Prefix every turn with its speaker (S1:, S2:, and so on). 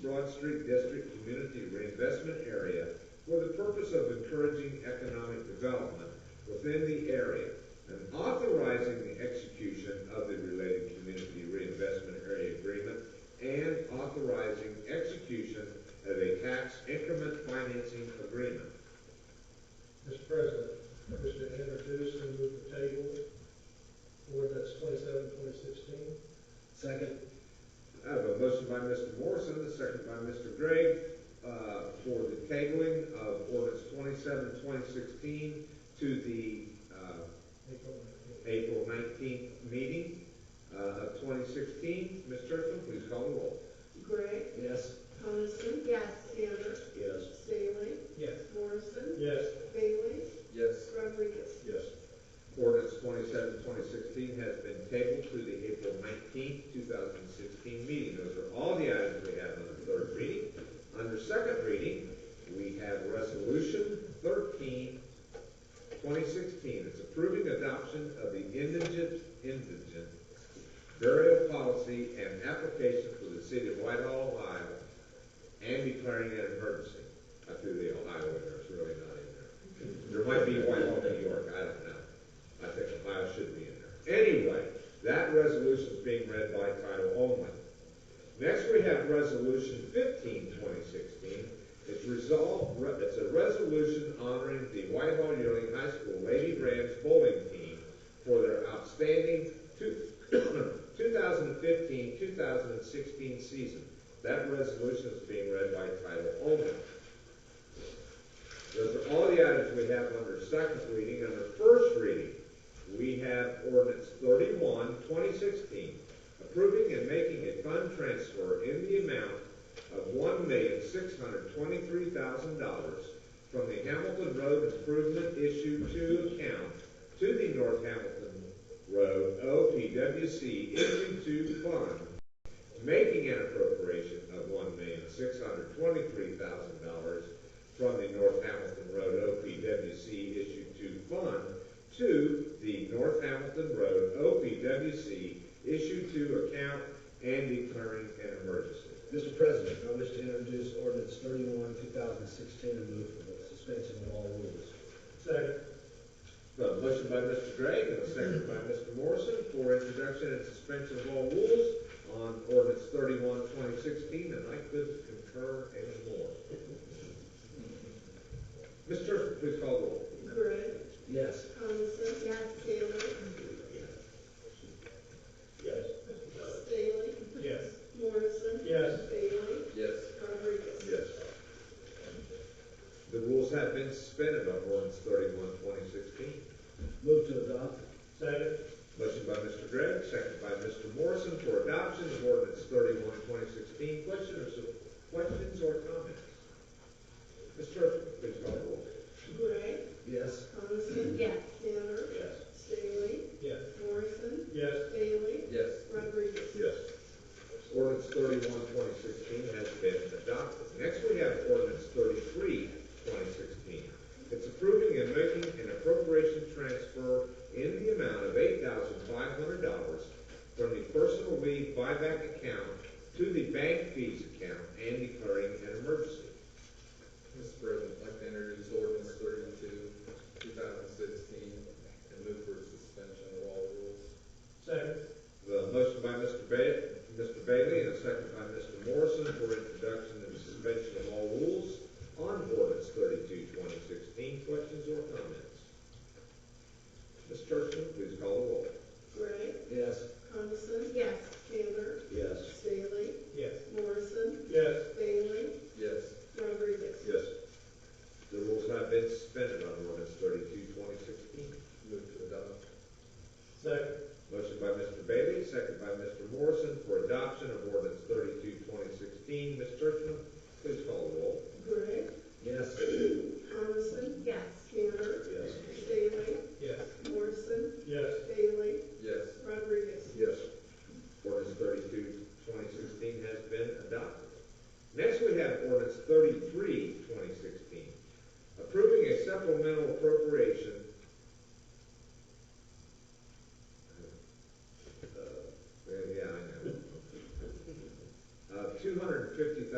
S1: Broad Street District Community Reinvestment Area for the purpose of encouraging economic development within the area and authorizing the execution of the related community reinvestment area agreement and authorizing execution of a tax increment financing agreement.
S2: Mr. President, I wish to introduce and move the table ordinance 27, 2016.
S3: Second.
S1: I have a motion by Mr. Morrison, a second by Mr. Gregg, uh, for the tabling of ordinance 27-2016 to the, uh,
S2: April nineteenth.
S1: April nineteenth meeting, uh, of twenty sixteen. Ms. Churchman, please call the roll.
S4: Gregg,
S3: Yes.
S4: Coniston. Yes. Tanner.
S3: Yes.
S4: Bailey.
S2: Yes.
S4: Morrison.
S2: Yes.
S4: Bailey.
S3: Yes.
S4: Rodriguez.
S3: Yes.
S1: Ordinance 27-2016 has been tabled to the April nineteenth, two thousand sixteen meeting. Those are all the items we have on the third reading. Under second reading, we have resolution 13-2016. It's approving adoption of the indigent, indigent burial policy and application for the city of Whitehall, Ohio, and declaring an emergency. I threw the Ohio in there, it's really not in there. There might be Whitehall, New York, I don't know. I think Ohio should be in there. Anyway, that resolution is being read by title only. Next, we have Resolution 15, 2016. It's resolved, re- it's a resolution honoring the Whitehall Yearling High School Lady Rams bowling team for their outstanding two- 2015-2016 season. That resolution is being read by title only. Those are all the items we have under second reading. Under first reading, we have ordinance 31, 2016, approving and making a fund transfer in the amount of $1,623,000 from the Hamilton Road Improvement Issue 2 account to the North Hamilton Road OPWC Issue 2 fund, making an appropriation of $1,623,000 from the North Hamilton Road OPWC Issue 2 Fund to the North Hamilton Road OPWC Issue 2 account and declaring an emergency.
S3: Mr. President, I wish to introduce ordinance thirty-one, two thousand sixteen, and move for the suspension of all rules.
S2: Second.
S1: A motion by Mr. Gregg and a second by Mr. Morrison for introduction and suspension of all rules on ordinance 31, 2016, and I could concur and more. Mr. Churchman, please call the roll.
S4: Gregg,
S3: Yes.
S4: Coniston. Yes. Tanner.
S3: Yes.
S4: Bailey.
S2: Yes.
S4: Morrison.
S2: Yes.
S4: Bailey.
S3: Yes.
S4: Rodriguez.
S3: Yes.
S1: The rules have been suspended on ordinance 31, 2016.
S3: Move to adopt.
S2: Second.
S1: Motion by Mr. Gregg, second by Mr. Morrison for adoption of ordinance 31, 2016. Questions or, questions or comments? Ms. Churchman, please call the roll.
S4: Gregg,
S3: Yes.
S4: Coniston. Yes. Tanner.
S3: Yes.
S4: Bailey.
S2: Yes.
S4: Morrison.
S2: Yes.
S4: Bailey.
S3: Yes.
S4: Rodriguez.
S1: Yes. Ordinance 31, 2016 has been adopted. Next, we have ordinance 33, 2016. It's approving and making an appropriation transfer in the amount of $8,500 from the personal leave buyback account to the bank fees account and declaring an emergency.
S5: Mr. President, I'd like to introduce ordinance thirty-two, two thousand sixteen, and move for suspension of all rules.
S2: Second.
S1: The motion by Mr. Ba- Mr. Bailey and a second by Mr. Morrison for introduction and suspension of all rules on ordinance 32, 2016. Questions or comments? Ms. Churchman, please call the roll.
S4: Gregg,
S3: Yes.
S4: Coniston. Yes. Tanner.
S3: Yes.
S4: Bailey.
S2: Yes.
S4: Morrison.
S2: Yes.
S4: Bailey.
S5: Yes.
S4: Rodriguez.
S1: Yes. The rules have been suspended on ordinance 32, 2016.
S5: Move to adopt.
S2: Second.
S1: Motion by Mr. Bailey, second by Mr. Morrison for adoption of ordinance 32, 2016. Ms. Churchman, please call the roll.
S4: Gregg,
S3: Yes.
S4: Coniston. Yes. Tanner.
S3: Yes.
S4: Bailey.
S2: Yes.
S4: Morrison.
S2: Yes.
S4: Bailey.
S5: Yes.
S4: Rodriguez.
S3: Yes.
S1: Ordinance 32, 2016 has been adopted. Next, we have ordinance 33, 2016, approving a supplemental appropriation uh,